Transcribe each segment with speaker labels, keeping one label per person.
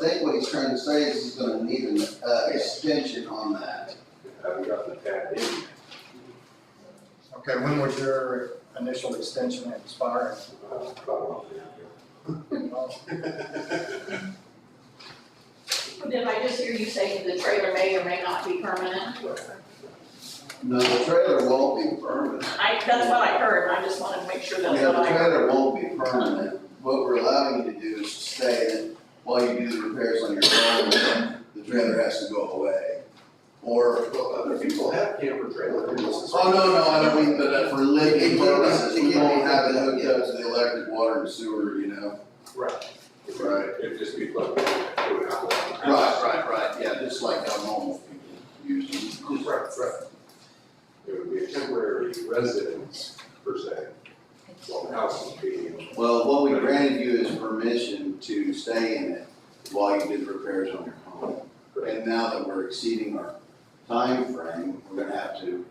Speaker 1: was trying to say is he's gonna need an, uh, extension on that.
Speaker 2: haven't gotten it tapped in yet.
Speaker 3: Okay, when would your initial extension expire?
Speaker 2: Uh, about a month ago.
Speaker 4: Did I just hear you say the trailer may or may not be permanent?
Speaker 1: No, the trailer won't be permanent.
Speaker 4: I, that's what I heard, and I just wanted to make sure that's
Speaker 1: Yeah,
Speaker 4: what
Speaker 1: the
Speaker 4: I heard.
Speaker 1: trailer won't be permanent. What we're allowing you to do is to stay that while you do the repairs on your home, the trailer has to go away. Or,
Speaker 2: Well, other people have camper trailers.
Speaker 1: oh, no, no, I don't mean, but uh, for living purposes, we won't have it hooked up to the electric, water and sewer, you know?
Speaker 2: Right.
Speaker 1: Right.
Speaker 2: It'd just be plugged in. Right,
Speaker 1: Right, right, right, yeah, just like how normal people use them.
Speaker 2: Right, right. It would be a temporary residence per se, while the house is being.
Speaker 1: Well, what we granted you is permission to stay in it while you did repairs on your home. And now that we're exceeding our time frame, we're gonna have to,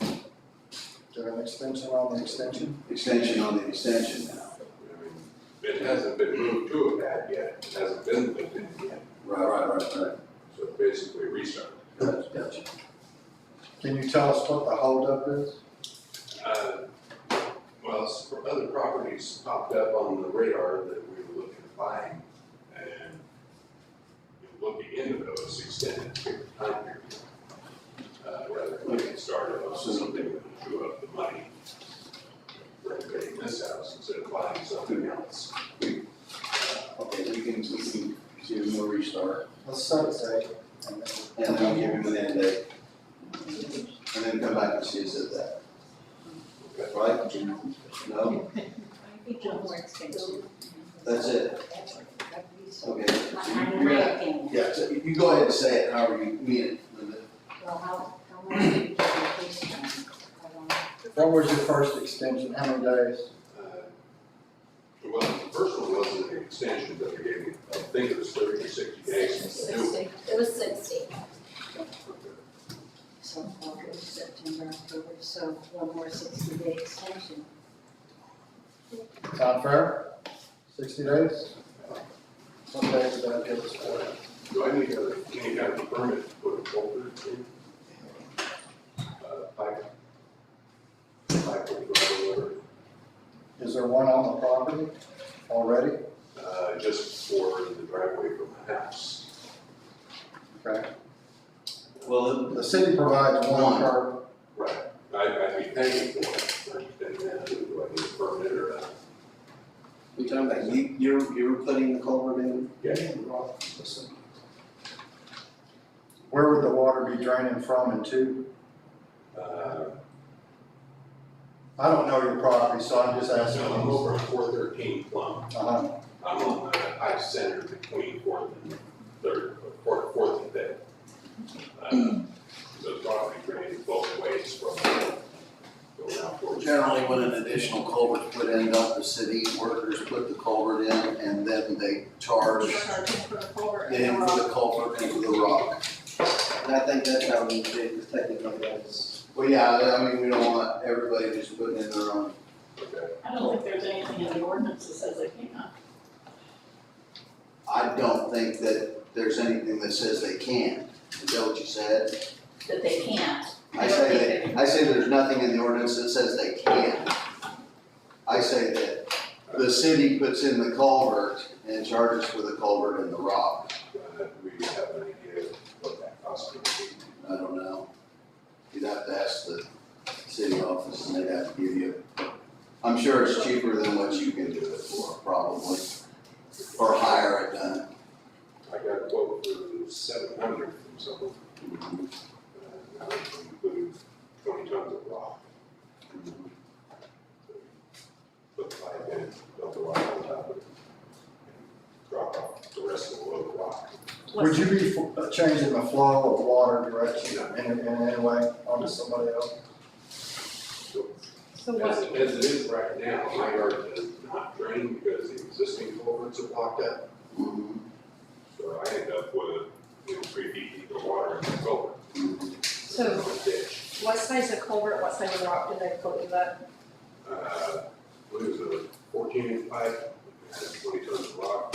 Speaker 3: Do an extension on the extension?
Speaker 1: extension on the extension now.
Speaker 2: I mean, It hasn't been moved to a pad yet, it hasn't been lived in yet,
Speaker 1: Right, right, right, right.
Speaker 2: so basically restart.
Speaker 1: Gotcha, gotcha.
Speaker 3: Can you tell us what the holdup is?
Speaker 2: Uh, Well, s- other properties popped up on the radar that we were looking at buying and looking into those extended period of time period. Uh, Rather than getting started on something that would chew up the money. Renovating this house instead of buying something else. Uh,
Speaker 1: Okay, we can, we can do a more restart,
Speaker 3: Let's set a date. and then-
Speaker 1: and then give him an end date. And then come back and see us at that, right? No, that's it, okay.
Speaker 5: I'm reacting.
Speaker 1: Yeah, so you go ahead and say it however you mean it, Linda.
Speaker 5: Well, how, how much did you get the case done? How long?
Speaker 3: What was your first extension? How many days?
Speaker 2: Uh, Well, the first one wasn't an extension that we gave, you. I think it was thirty or sixty days to do it.
Speaker 5: It was sixty. So August, September, October, so one more sixty day extension.
Speaker 3: Sound fair? Sixty days? What days did I give us for it?
Speaker 2: Do I need a, any kind of permit to put a culvert in? Uh, pipe? Pipe or whatever,
Speaker 3: Is there one on the property already?
Speaker 2: uh, just for the driveway from the house.
Speaker 3: Okay.
Speaker 1: Well,
Speaker 3: The city provides one
Speaker 1: One.
Speaker 3: per,
Speaker 2: Right. I, I'd be paying for it, but then uh, do I need a permit or not?
Speaker 1: we talking about you, you're, you're putting the culvert in?
Speaker 2: Yeah.
Speaker 3: where would the water be draining from and to?
Speaker 2: Uh,
Speaker 3: I don't know your property, so I'm just asking.
Speaker 2: so I'm over on four thirteen Plum,
Speaker 3: Uh-huh.
Speaker 2: I'm on the high center between fourth and third, fourth, fourth and fifth. Uh, So property drains both ways from, going out towards.
Speaker 1: Generally, when an additional culvert's put in, don't the city workers put the culvert in and then they charge them for the culvert and for the rock?
Speaker 6: And I think that's how we did it, technically, that is.
Speaker 1: Well, yeah, I mean, we don't want everybody just putting in their own.
Speaker 2: Okay.
Speaker 4: I don't think there's anything in the ordinance that says they can't.
Speaker 1: I don't think that there's anything that says they can't. Is that what you said?
Speaker 4: That they can't.
Speaker 1: I say that, I say there's nothing in the ordinance that says they can. I say that the city puts in the culvert and charges for the culvert and the rock.
Speaker 2: Uh, we have an idea of what that cost would be.
Speaker 1: I don't know. You'd have to ask the city office and they'd have to give you. I'm sure it's cheaper than what you can do it for, probably, or hire it done.
Speaker 2: I got a quote for seven hundred from someone,
Speaker 1: Mm-hmm.
Speaker 2: uh, that would include twenty tons of rock. Put five in, dump the rock on top of it, and drop off the rest of the load of rock.
Speaker 3: Would you be fo- uh, changing the flow of water direction in, in any way onto somebody else?
Speaker 2: So
Speaker 4: So
Speaker 2: as,
Speaker 4: what,
Speaker 2: it- as it is right now, my yard does not drain because the existing culverts are blocked up,
Speaker 1: Mhm,
Speaker 2: so I end up with, you know, three feet deep of water in the culvert.
Speaker 1: mhm.
Speaker 7: So-
Speaker 2: It's a ditch.
Speaker 7: What size of culvert, what size of rock did they put in that?
Speaker 2: uh, what is it, fourteen inch pipe, had twenty tons of rock,